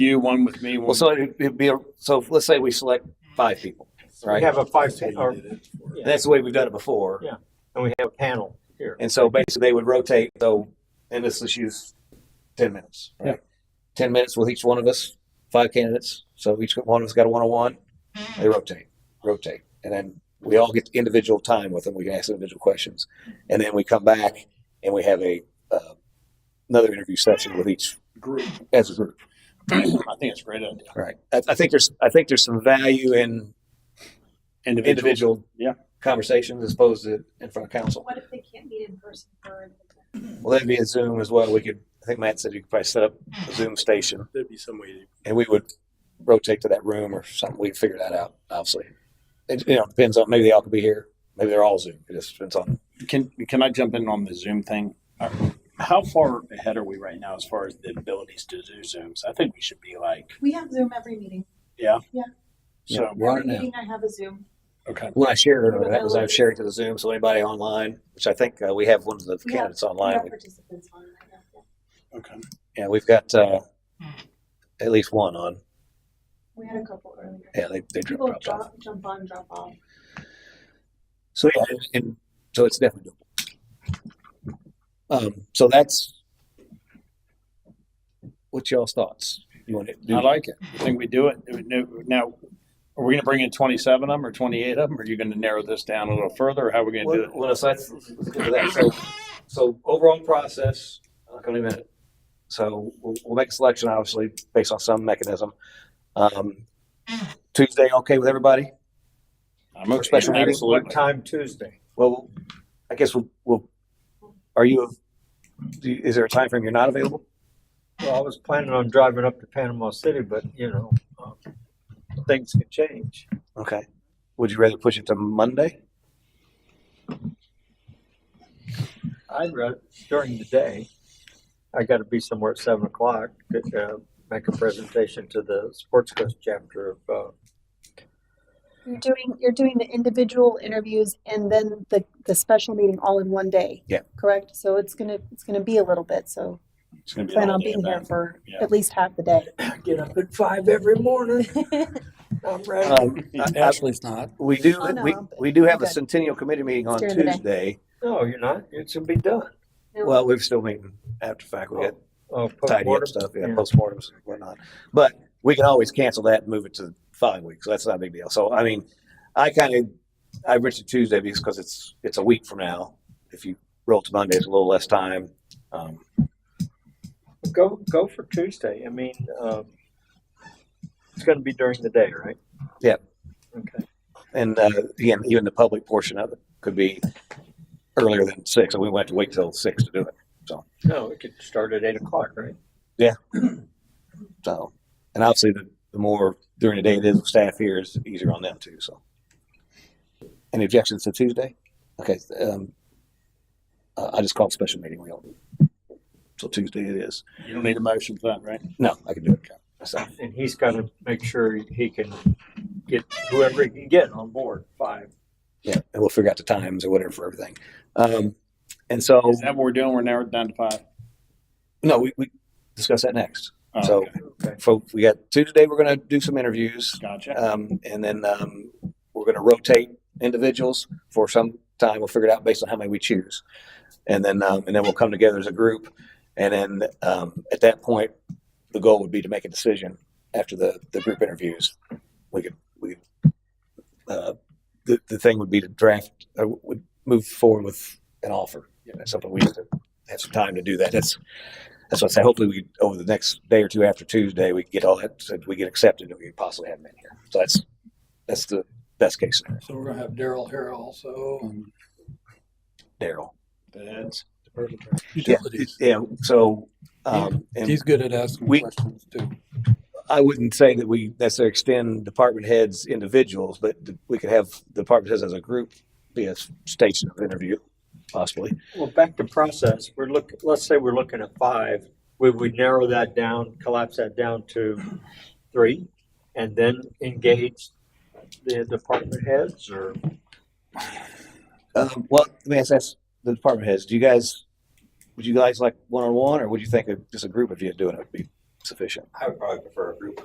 you, one with me, one. Well, so it'd it'd be, a so let's say we select five people, We right? have a five, pa- or, That's the way we've done it before. Yeah. and we have a panel here. And so basically they would rotate, so, and this is use ten minutes, right? Ten minutes with each one of us, five candidates, so each one of us got a one-on-one, they rotate, rotate. And then we all get individual time with them, we can ask individual questions. And then we come back and we have a, uh, another interview session with each, Group. as a group. I think it's a great idea. Right. I, I think there's, I think there's some value in individual Yeah. conversations as opposed to in front of council. What if they can't meet in person for? Well, that'd be a Zoom as well. We could, I think Matt said you could probably set up a Zoom station There'd be some way to and we would rotate to that room or something. We'd figure that out, obviously. It, you know, depends on, maybe they all could be here. Maybe they're all Zoom. It just depends on. Can, can I jump in on the Zoom thing? Uh, How far ahead are we right now as far as the abilities to do Zooms? I think we should be like, We have Zoom every meeting. so, we're on it Every now. meeting I have a Zoom. okay. When I shared, it, that was I was sharing to the Zoom. So anybody online, which I think uh, we have one of the We have- candidates We have online. participants on right now. yeah. Okay. Yeah, we've got uh, at least one on. We had a couple earlier. Yeah, they, they People dropped off. drop, jump on, drop off. So yeah, and, and so it's definitely doable. Um, so that's what's y'all's thoughts? You want to do I like it. You think we do it? Now, are we going to bring in 27 of them or 28 of them? Are you going to narrow this down a little further? Or how are we going to do well, it? well, so that's let's get to that. So, so overall process. I'll come in a minute. So we'll, we'll make a selection, obviously, based on some mechanism. Um, Tuesday, okay with everybody? I'm okay. Special meeting. What Absolutely. time Tuesday? Well, I guess we'll. we'll are you? do you- Is there a time frame you're not available? Well, I was planning on driving up to Panama City, but you know, um, things can change. Okay. Would you rather push it to Monday? I'd rather during the day. I got to be somewhere at seven o'clock to uh, make a presentation to the Sports Coast chapter of. Uh, You're doing, you're doing the individual interviews and then the, the special meeting all in one day. Yeah. Correct? So it's gonna, it's gonna be a little bit, so It's gonna be an plan on all-day being here event. for Yeah. at least half the day. Get up at five every morning. I'm ready. Um, I- I- Actually, it's not. we do, Oh, no, we, I'm good. we do have a Good. centennial committee meeting on During the day. Tuesday. No, you're not. It's gonna be done. No. Well, we're still meeting after fact. We got Oh, tidy postmortem. up stuff, yeah, Yeah. postmortems and whatnot. But we can always cancel that and move it to five weeks. That's not a big deal. So, I mean, I kind of, I went to Tuesday because it's, it's a week from now. If you roll to Monday, it's a little less time. Um, Go go for Tuesday. I mean, um, it's going to be during the day, right? Yep. Okay. And uh, again, even the public portion of it could be earlier than six, and we went to wait till six to do it. No, we could start at eight o'clock, right? So, and obviously, the, the more during the day it is with staff here, is easier on them too. So, any objections to Tuesday? Okay, um, uh, I just called special meeting. We all so Tuesday it is. You don't need a motion for that, right? No, I can do it. myself. And he's got to make sure he can get whoever he can get on board. Five. Yeah, and we'll figure out the times or whatever for everything. Um, and so, Is that what we're doing? We're narrowed down to five? no, we, we discuss that next. Oh, so, okay. Okay. folks, we got Tuesday. We're going to do some interviews. Gotcha. Um, and then, um, we're gonna rotate individuals for some time. We'll figure it out based on how many we choose. And then, um, and then we'll come together as a group. And then, um, at that point, the goal would be to make a decision after the, the group interviews. We could, we, uh, the, the thing would be to draft, uh, would move forward with an offer. You know, That's something we have to have some time to do that. That's, that's what I say. Hopefully we, over the next day or two after Tuesday, we get all that, so we get accepted and we could possibly have them in here. So that's, that's the best case scenario. So we're gonna have Daryl here also and Daryl. That's- utilities. Yeah. So, um, and He's good at asking We- questions too. I wouldn't say that we necessarily extend department heads individuals, but we could have department heads as a group be a station of interview possibly. Well, back to process. We're look. Let's say we're looking at five. We would narrow that down, collapse that down to three, and then engage the department heads or Um, well, let me ask, ask the department heads, do you guys, would you guys like one-on-one or would you think of just a group of you doing it would be sufficient. I would probably prefer a group